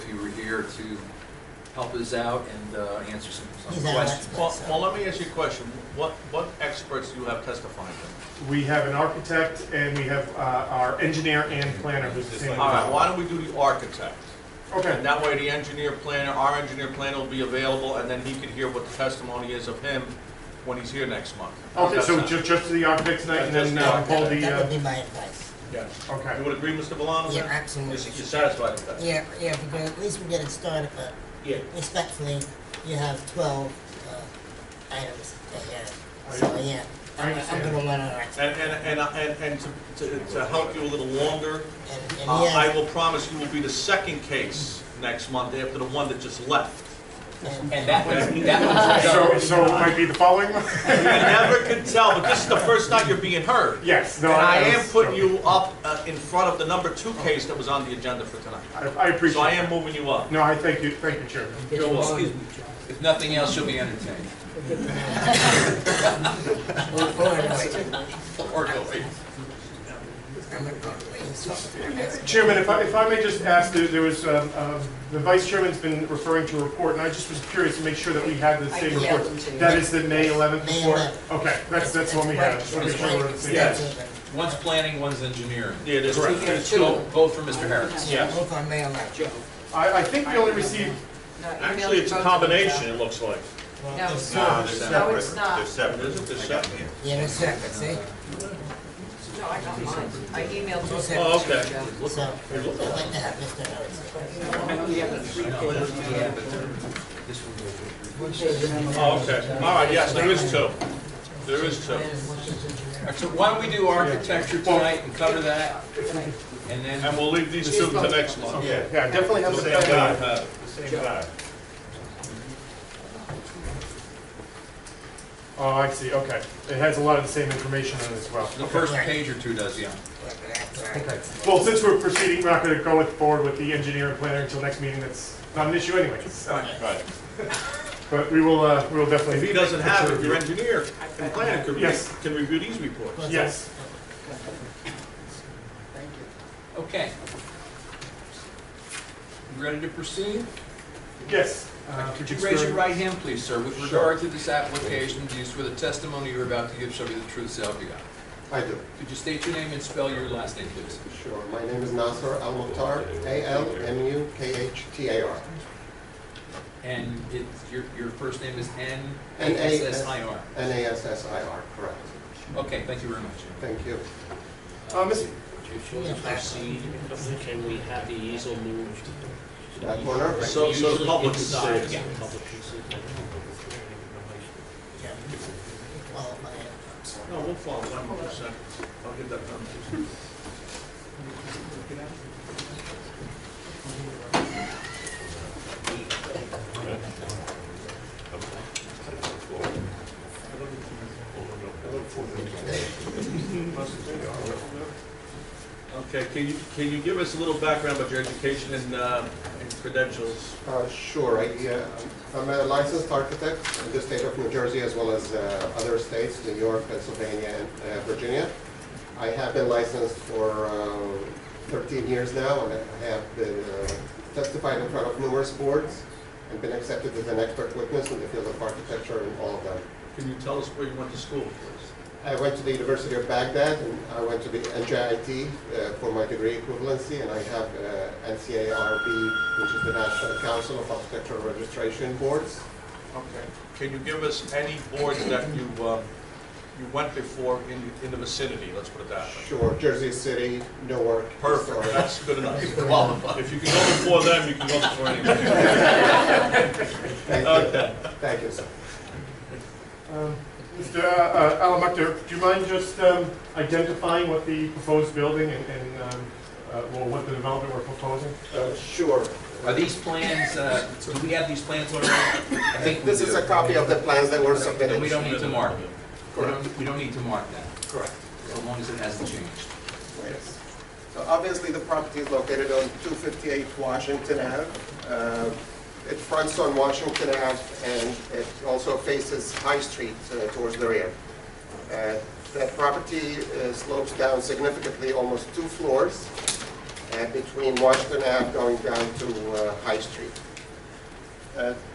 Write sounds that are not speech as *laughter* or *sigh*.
to help us out and uh, answer some He's some our questions. Well, expert. well, let me ask you a question. What, what experts do you have testifying to? We have an architect and we have uh, our engineer and planner who's the same. All right, why don't we do the architect? And Okay, that way, the engineer planner, our engineer planner will be available, and then he can hear what the testimony is of him when he's here next month. okay, so That's ju- just to the architect tonight and then uh, Just the pull the, That would uh, be my advice. it. Yes. You okay. Oh, would agree, Mr. Valano? Yeah, then? absolutely. You're you're satisfied with that? Yeah, yeah, because at least we get it started, but Yeah. respectfully, you have twelve, uh, items ahead. So, yeah, I I'm, I'm understand. gonna let our expert, And, and, and, and, and to, to- to help you a little longer, and, and uh, he I has, will promise you will be the second case next month after the one that just left. and, And that one's, that one's. So, so it might be the following one? *laughs* You never can tell, but this is the first time you're being heard. Yes, no. And I am was putting joking. you up uh, in front of the number two case that was on the agenda for tonight. I I So I appreciate it. am moving you up. No, I thank you, thank you, Chairman. Excuse me. If nothing else, you'll be entertained. or, or, annoyed. Or go away. I'm gonna go away. Chairman, if I, if I may just ask, there there was, um, um, the Vice Chairman's been referring to a report, and I just was curious to make sure that we had the same I- yeah, report. me too. That is the May 11th May report? 11th. Okay, that's, that's what we quite- have. Just wanna make it's sure we're quite on the same Yeah. page. extensive and- One's planning, one's engineering. Yeah, there's two Correct. cases. Both both for Mr. Harris. Yeah. Both on May eleventh. Joe. I, I think we only received, Actually, it's a combination, it looks like. Well, No. it's- Ah, No, they're No, it's separate. not. They're separate. Is it? They're I got them separate. here. Yeah, they're separate, see? No, I got mine. I emailed Two you. separate. Oh, okay. So, I'd like to have Mr. Harris. This one will be- Oh, okay. All right, yes, there is two. There is two. All right, So why don't we do architecture tonight and cover that? And And then, we'll leave these two to next month. Yeah. yeah, definitely have The the same guy. same. huh? The same guy. Oh, I see, okay. It has a lot of the same information in it as well. the first page or two does, yeah. Okay. Well, since we're proceeding, we're not gonna go with, forward with the engineer and planner until next meeting, that's not an issue anyways. Right. *laughs* But we will, uh, we will If definitely. he doesn't have it, your engineer and planner can, re- Yes. can review these reports. Yes. Okay. You Ready to proceed? Yes. Uh, Could you raise your explain- right hand, please, sir? With regard to this application, do you swear the testimony you're about to give shall be the truth, so help you God? I do. Could you state your name and spell your last name, please? Sure. My name is Nasser Al Mukhtar, A L M U K H T A R. And it's, your, your first name is N N A S- S I R. N A S S I R, correct. Okay, thank you very much. Thank you. Uh, Miss- If you'll proceed, can we have the easel moved? That corner? So, so the public is Inside, safe. yeah, public can see that. No, we'll follow one hundred percent. I'll get that done. Okay, can you, can you give us a little background about your education and, uh, and credentials? Uh, Sure. I, uh, I'm a licensed architect in the state of New Jersey as well as uh, other states, New York, Pennsylvania, and uh, Virginia. I have been licensed for um, 13 years now, and I have been uh, testified in front of numerous boards and been accepted as an expert witness in the field of architecture and all of them. Can you tell us where you went to school, please? I went to the University of Baghdad and I went to the NJIT uh, for my degree equivalency and I have uh, NCARB, which is the National Council of Architectural Registration Boards. Okay. Can you give us any boards that you, uh, you went before in, in the vicinity, let's put it that way? Sure, Jersey City, Newark. Perfect, *laughs* Astoria. that's good enough. If you can go before them, you can go before anyone. Thank Okay. you. Thank you, sir. um, Mr. Alamakter, do you mind just um, identifying what the proposed building and- and, um, uh, well, what the development we're proposing? Uh, Sure. Are these plans, uh, do we have these plans already? I think we This do. is a copy of the plans that were Then we submitted. don't need to mark it. We don't, we don't need to mark that, Correct. so long as it hasn't changed. Yes. So obviously, the property is located on 258 Washington Ave. Uh, It fronts on Washington Ave, and it also faces High Street uh, towards the rear. Uh, That property uh, slopes down significantly, almost two floors, uh, between Washington Ave going down to uh, High Street. uh,